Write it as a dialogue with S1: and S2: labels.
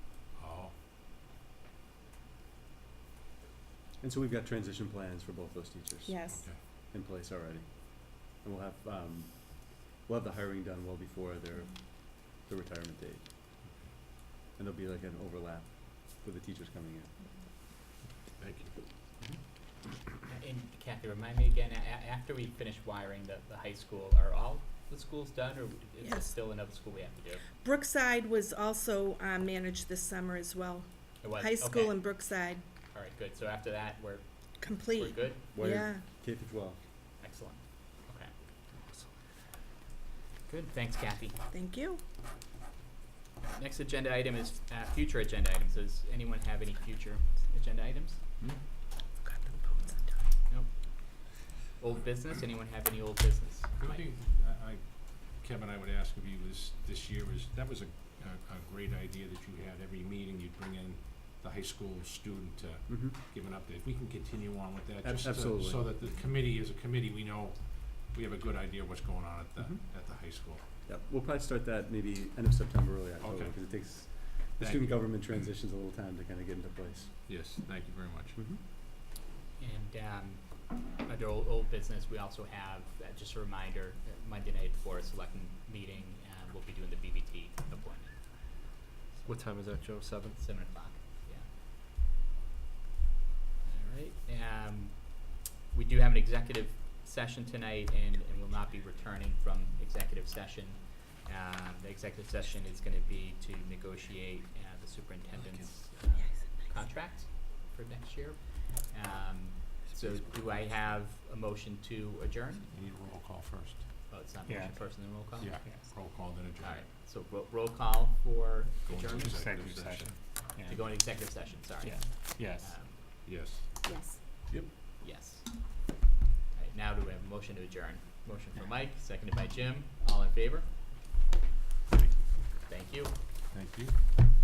S1: Oh,
S2: And so we've got transition plans for both those teachers.
S3: Yes.
S2: In place already. And we'll have, um, we'll have the hiring done well before their,
S3: Mm-hmm.
S2: the retirement date. And there'll be like an overlap with the teachers coming in.
S1: Thank you.
S4: And Kathy, remind me again, a- a- after we finish wiring the, the high school, are all the schools done, or is there
S3: Yes.
S4: still another school we have to do?
S3: Brookside was also uh, managed this summer as well.
S4: It was,
S3: High
S4: okay.
S3: school in Brookside,
S4: All right, good, so after that, we're, we're
S3: complete.
S4: good,
S2: Why-
S3: Yeah.
S2: K through twelve.
S4: excellent, okay. Good, thanks Kathy.
S3: Thank you.
S4: Next agenda item is, uh, future agenda items, does anyone have any future agenda items?
S3: Got the phones on time.
S4: Old business, anyone have any old business?
S1: The only
S4: Mike?
S1: thing I, I, Kevin, I would ask of you is, this year is, that was a, a, a great idea that you had, every meeting you'd bring in the high school student to
S2: Mm-hmm.
S1: give an update, if we can continue on with that,
S2: Ab-
S1: just to-
S2: absolutely.
S1: so that the committee, as a committee, we know, we have a good idea what's going on at the,
S2: Mhm.
S1: at the high school.
S2: Yep, we'll probably start that maybe end of September, early October,
S1: Okay.
S2: because it takes, the
S1: Thank
S2: student
S1: you.
S2: government transitions a little time to kind of get into place.
S1: Yes, thank you very much.
S2: Mm-hmm.
S4: And um, under old, old business, we also have, uh, just a reminder, uh, Monday night for a selecting meeting, uh, we'll be doing the BBT appointment.
S5: What time is that, Joe? Seven?
S4: Seven o'clock, yeah. All right, um, we do have an executive session tonight and, and will not be returning from executive session. Um, the executive session is gonna be to negotiate, uh, the superintendent's, uh, contract for next year. Um, so do I have a motion to adjourn?
S1: We need a roll call first.
S4: Oh, it's not
S6: Yeah.
S4: motion first and then roll call?
S1: Yeah, roll call, then adjourn.
S4: All right, so ro- roll call for
S1: Go into
S4: adjournment,
S6: Executive session.
S4: to go into executive session, sorry.
S6: Yeah. Yes.
S4: Um,
S1: Yes.
S3: Yes.
S4: Yes. All right, now do we have a motion to adjourn? Motion for Mike, seconded by Jim, all in favor? Thank you.
S1: Thank you.